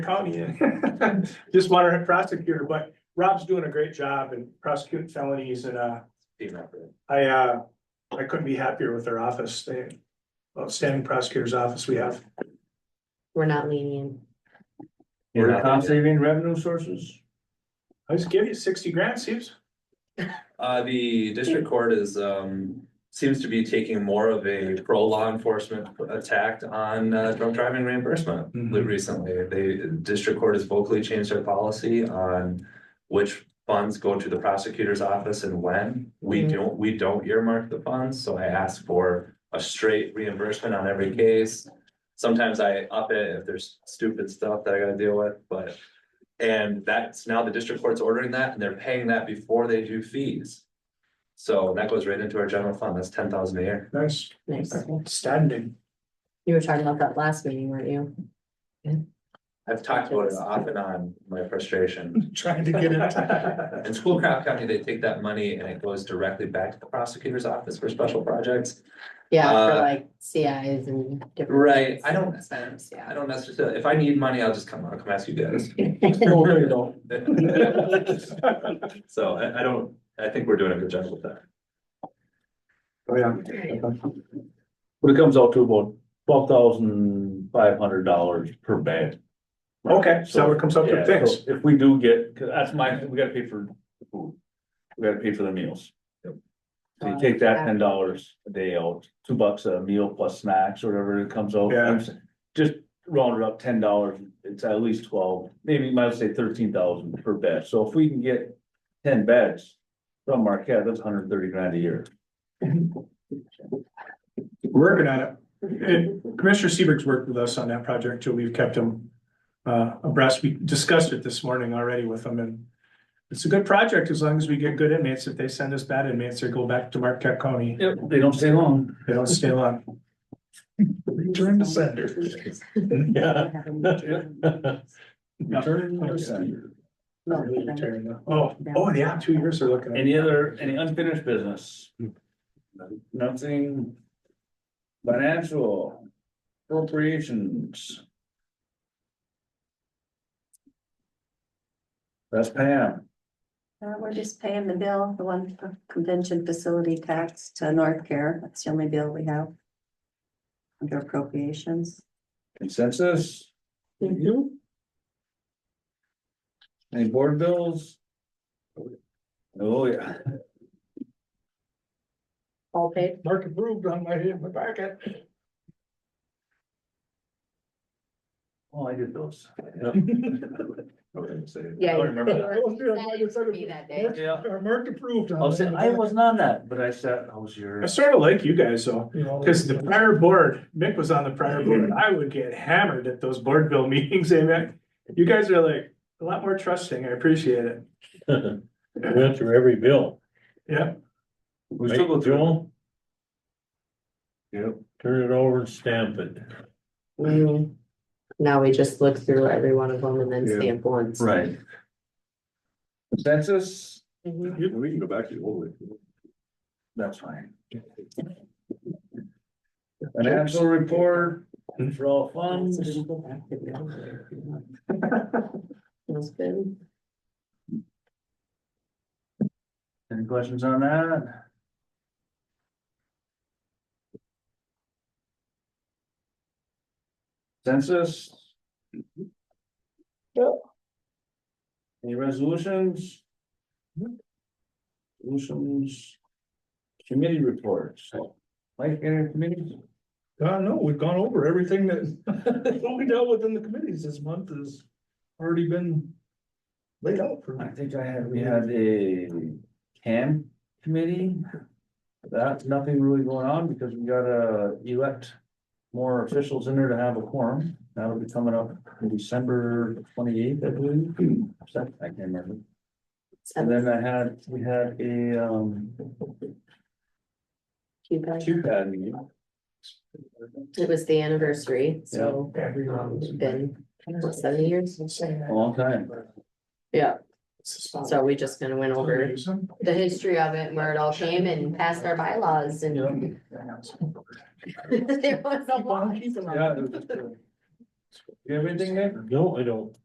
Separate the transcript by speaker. Speaker 1: county in. Just want our prosecutor, but Rob's doing a great job in prosecuting felonies and, uh, I, uh, I couldn't be happier with their office. They, outstanding prosecutor's office we have.
Speaker 2: We're not lenient.
Speaker 3: Were
Speaker 4: We're
Speaker 3: the
Speaker 4: not-
Speaker 3: cost saving revenue sources?
Speaker 1: I just give you sixty grand, Steve's.
Speaker 4: Uh, the district court is, um, seems to be taking more of a pro law enforcement attack on, uh, drunk driving reimbursement.
Speaker 1: Mhm.
Speaker 4: Recently, they, district court has vocally changed their policy on which funds go to the prosecutor's office and when. We
Speaker 2: Mhm.
Speaker 4: don't, we don't earmark the funds, so I ask for a straight reimbursement on every case. Sometimes I up it if there's stupid stuff that I gotta deal with, but. And that's now the district court's ordering that and they're paying that before they do fees. So that goes right into our general fund. That's ten thousand a year.
Speaker 1: Nice,
Speaker 2: Nice.
Speaker 1: standing.
Speaker 2: You were talking about that last meeting, weren't you?
Speaker 4: I've talked about it off and on, my frustration.
Speaker 1: Trying to get it.
Speaker 4: In Schoolcraft County, they take that money and it goes directly back to the prosecutor's office for special projects.
Speaker 2: Yeah, for
Speaker 4: Uh,
Speaker 2: like CIs and different.
Speaker 4: Right,
Speaker 2: things.
Speaker 4: I don't,
Speaker 2: Expense,
Speaker 4: I don't necessarily, if I need money, I'll just come, I'll come ask you guys.
Speaker 2: Yeah.
Speaker 1: Don't worry, though.
Speaker 4: So I, I don't, I think we're doing a good job with that.
Speaker 1: Oh, yeah.
Speaker 3: But it comes out to about twelve thousand five hundred dollars per bed.
Speaker 1: Okay, so
Speaker 3: So,
Speaker 1: it comes up
Speaker 3: yeah,
Speaker 1: to fix.
Speaker 3: so if we do get, cause that's my, we gotta pay for the food. We gotta pay for the meals. So you take that ten dollars a day out, two bucks a meal plus snacks or whatever it comes out.
Speaker 1: Yeah.
Speaker 3: Just round it up ten dollars, it's at least twelve, maybe you might as well say thirteen thousand per bed, so if we can get ten beds. From Marquette, that's hundred and thirty grand a year.
Speaker 1: Working on it. And Commissioner Seaberg's worked with us on that project too. We've kept him uh, abreast. We discussed it this morning already with him and it's a good project as long as we get good inmates. If they send us bad inmates, they go back to Marquette County.
Speaker 3: Yep. They don't stay long.
Speaker 1: They don't stay long. Return to sender. Yeah. Oh, oh, yeah, two years they're looking. at.
Speaker 3: Any other, any unfinished business? Nothing. Financial appropriations. That's Pam.
Speaker 5: Uh, we're just paying the bill, the one for convention facility tax to North Care. That's the only bill we have. Under appropriations.
Speaker 3: Consensus?
Speaker 2: Mhm.
Speaker 3: Any board bills? Oh, yeah.
Speaker 2: All paid.
Speaker 1: Mark approved on my, my packet.
Speaker 3: Oh, I did those.
Speaker 2: Yeah.
Speaker 3: I don't remember that.
Speaker 1: I was doing- I just said it.
Speaker 2: Me that day.
Speaker 3: Yeah,
Speaker 1: Mark approved
Speaker 3: I was saying, I wasn't on that, but I said, I was
Speaker 1: I
Speaker 3: your.
Speaker 1: sort of like you guys though. Because the prior board, Mick was on the prior board, I would get hammered at those board bill meetings, eh, Mick? You guys are like, a lot more trusting, I appreciate it.
Speaker 6: Went through every bill.
Speaker 1: Yeah,
Speaker 3: We still go through.
Speaker 6: Joel,
Speaker 3: Yep.
Speaker 6: turn it over and stamp it.
Speaker 2: Mm. Now we just look through every one of them and then stamp once.
Speaker 3: Right. Consensus?
Speaker 2: Mhm.
Speaker 6: We can go back to the old way.
Speaker 3: That's fine. Financial report for all funds.
Speaker 2: So just go back to the other one if you want. Feels good.
Speaker 3: Any questions on that? Census? Any resolutions? Resolutions? Committee reports, like any committee?
Speaker 7: Uh, no, we've gone over everything that, what we dealt with in the committees this month has already been laid out for
Speaker 3: I
Speaker 7: me.
Speaker 3: think I had, we had a CAM committee. That's nothing really going on because we gotta elect more officials in there to have a quorum. That'll be coming up in December twenty eighth, I believe. Second, I can't remember. And then uh, I had, we had a um.
Speaker 2: Keep it.
Speaker 3: QCAD meeting.
Speaker 2: It was the anniversary, so um, it's been what, seven years.
Speaker 3: A long time.
Speaker 2: Yeah, so we just kind of went over the history of it, and where it all came and passed our bylaws and. There was a lot.
Speaker 3: Yeah, it was just, uh,
Speaker 8: you have anything, Nick?
Speaker 3: No, I don't.